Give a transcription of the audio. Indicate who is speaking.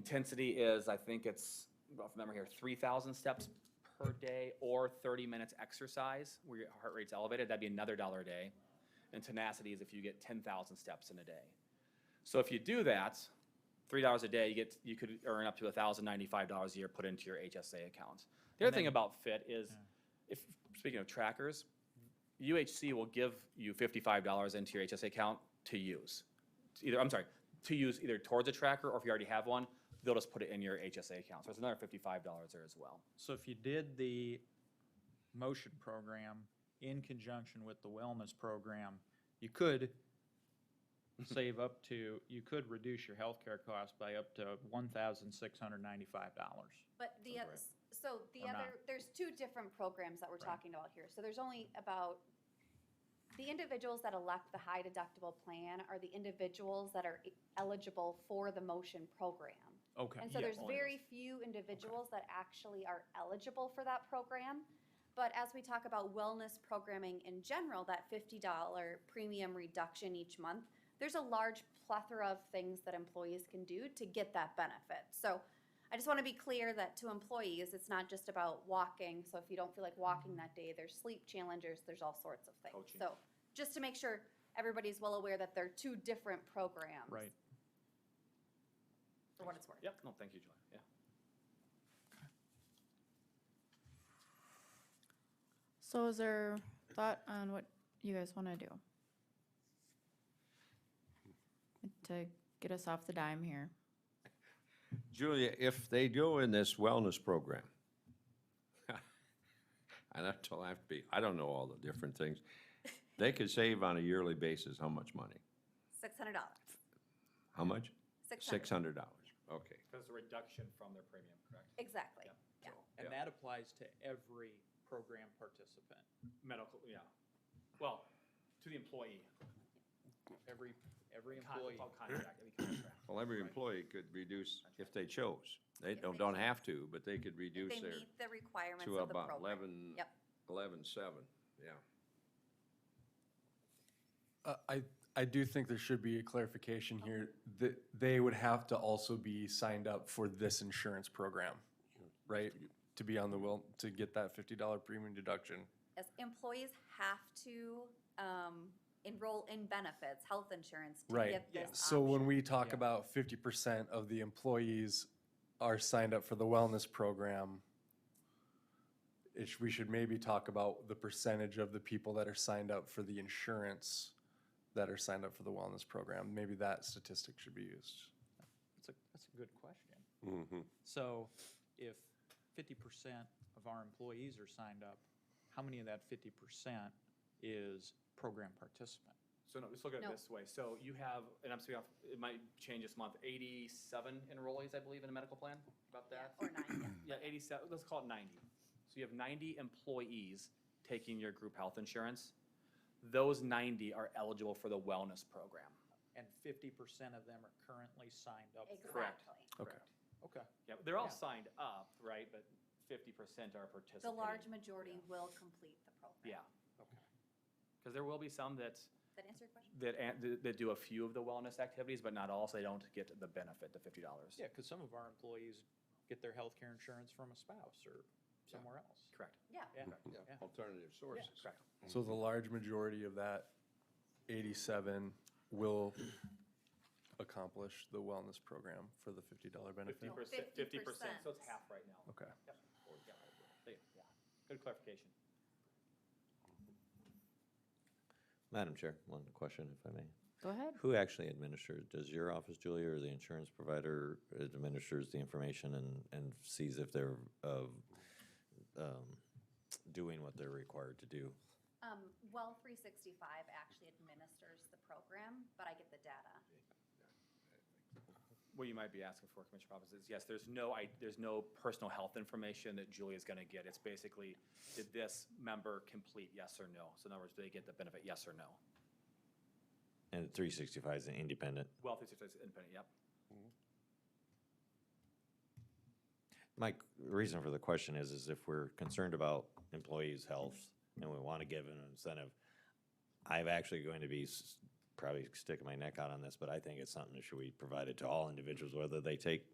Speaker 1: intensity is, I think it's, off memory here, three thousand steps per day or thirty minutes exercise where your heart rate's elevated, that'd be another dollar a day. And tenacity is if you get ten thousand steps in a day. So if you do that, three dollars a day, you get, you could earn up to thousand ninety-five dollars a year put into your HSA account. The
Speaker 2: And
Speaker 1: other thing
Speaker 2: then-
Speaker 1: about Fit is, if, speaking of trackers, UHC will give you fifty-five dollars into your HSA account to use. To Either, I'm sorry, to use either towards a tracker or if you already have one, they'll just put it in your HSA account. So it's another fifty-five dollars there as well.
Speaker 2: So if you did the motion program in conjunction with the wellness program, you could save up to, you could reduce your healthcare costs by up to one thousand six hundred ninety-five dollars.
Speaker 3: But the
Speaker 2: Sounds
Speaker 3: other, so the
Speaker 2: Or not.
Speaker 3: other, there's two different programs that we're
Speaker 2: Right.
Speaker 3: talking about here. So there's only about, the individuals that elect the high deductible plan are the individuals that are e-, eligible for the motion program.
Speaker 2: Okay.
Speaker 3: And so there's very few individuals that actually are eligible for that program. But as we talk about wellness programming in general, that $50 premium reduction each month, there's a large plethora of things that employees can do to get that benefit. So I just want to be clear that to employees, it's not just about walking. So if you don't feel like walking that day, there's sleep challenges, there's all sorts of things.
Speaker 1: Coaching.
Speaker 3: So just to make sure everybody's well aware that they're two different programs.
Speaker 2: Right.
Speaker 3: For what it's worth.
Speaker 1: Yep, no, thank you, Julie, yeah.
Speaker 4: So is there thought on what you guys want to do? To get us off the dime here.
Speaker 5: Julia, if they do in this wellness program, and I told I have to be, I don't know all the different things, they could save on a yearly basis how much money?
Speaker 3: $600.
Speaker 5: How much?
Speaker 3: $600.
Speaker 5: Six hundred dollars, okay.
Speaker 1: Because it's a reduction from their premium, correct?
Speaker 3: Exactly.
Speaker 1: Yep.
Speaker 3: Yeah.
Speaker 2: And that applies to every program participant,
Speaker 1: Medical, yeah. Well, to the employee.
Speaker 2: every, every
Speaker 1: Con-
Speaker 2: employee.
Speaker 1: it's all contract, every contract.
Speaker 5: Well, every
Speaker 2: Right.
Speaker 5: employee could reduce if they chose. They
Speaker 3: If they
Speaker 5: don't, don't
Speaker 3: chose.
Speaker 5: have to, but they could
Speaker 3: They
Speaker 5: reduce
Speaker 3: meet
Speaker 5: their,
Speaker 3: the requirements
Speaker 5: to
Speaker 3: of the
Speaker 5: about
Speaker 3: program.
Speaker 5: eleven,
Speaker 3: Yep.
Speaker 5: eleven-seven, yeah.
Speaker 6: Uh, I, I do think there should be a clarification here that they would have to also be signed up for this insurance program, right? To be on the will, to get that fifty dollar premium deduction.
Speaker 3: Yes, employees have to um, enroll in benefits, health insurance to
Speaker 6: Right.
Speaker 3: get this
Speaker 6: So when
Speaker 3: option.
Speaker 6: we talk
Speaker 2: Yeah.
Speaker 6: about fifty percent of the employees are signed up for the wellness program, it, sh- we should maybe talk about the percentage of the people that are signed up for the insurance that are signed up for the wellness program. Maybe that statistic should be used.
Speaker 2: That's a, that's a good question.
Speaker 5: Mm-hmm.
Speaker 2: So if fifty percent of our employees are signed up, how many of that fifty percent is program participant?
Speaker 1: So no, let's look at it
Speaker 3: No.
Speaker 1: this way. So you have, and I'm speaking off, it might change this month, eighty-seven enrollees, I believe, in a medical plan, about that?
Speaker 3: Or nine,
Speaker 1: Yeah,
Speaker 3: yeah.
Speaker 1: eighty-seven, let's call it ninety. So you have ninety employees taking your group health insurance. Those ninety are eligible for the wellness program.
Speaker 2: And fifty percent of them are currently signed up? for-
Speaker 1: Correct.
Speaker 3: Exactly.
Speaker 6: Okay.
Speaker 2: Okay.
Speaker 1: Yeah, they're all
Speaker 2: Yeah.
Speaker 1: signed up, right, but fifty percent are participating.
Speaker 3: The large majority will complete the program.
Speaker 1: Yeah,
Speaker 2: Okay.
Speaker 1: because there will be some that,
Speaker 3: Did that answer your question?
Speaker 1: that, an- that do a few of the wellness activities, but not all, so they don't get the benefit, the fifty dollars.
Speaker 2: Yeah, because some of our employees get their health care insurance from a spouse or somewhere else.
Speaker 1: Correct,
Speaker 3: Yeah.
Speaker 2: Yeah,
Speaker 5: Yeah,
Speaker 2: yeah.
Speaker 5: alternative sources.
Speaker 1: correct.
Speaker 6: So the large majority of that eighty-seven will accomplish the wellness program for the fifty dollar
Speaker 1: Fifty
Speaker 6: benefit?
Speaker 1: percent, fifty percent, so it's
Speaker 3: 50%.
Speaker 1: half right now.
Speaker 6: Okay.
Speaker 1: Yep. Yeah, there you go. Yeah. Good clarification.
Speaker 7: Madam Chair, one question if I may.
Speaker 4: Go ahead.
Speaker 7: Who actually administers? Does your office, Julia, or the insurance provider administers the information and, and sees if they're, uh, um, doing what they're required to do?
Speaker 3: Um, Well, 365 actually administers the program, but I get the data.
Speaker 1: What you might be asking for, Commissioner Poppins, is yes, there's no, I, there's no personal health information that Julia's gonna get. It's basically, did this member complete yes or no? So in other words, do they get the benefit, yes or no?
Speaker 7: And three sixty-five is an independent.
Speaker 1: Well, if it's it's independent, yep.
Speaker 7: My c- reason for the question is, is if we're concerned about employees' health and we want to give an incentive, I'm actually going to be s- probably sticking my neck out on this, but I think it's something that should be provided to all individuals, whether they take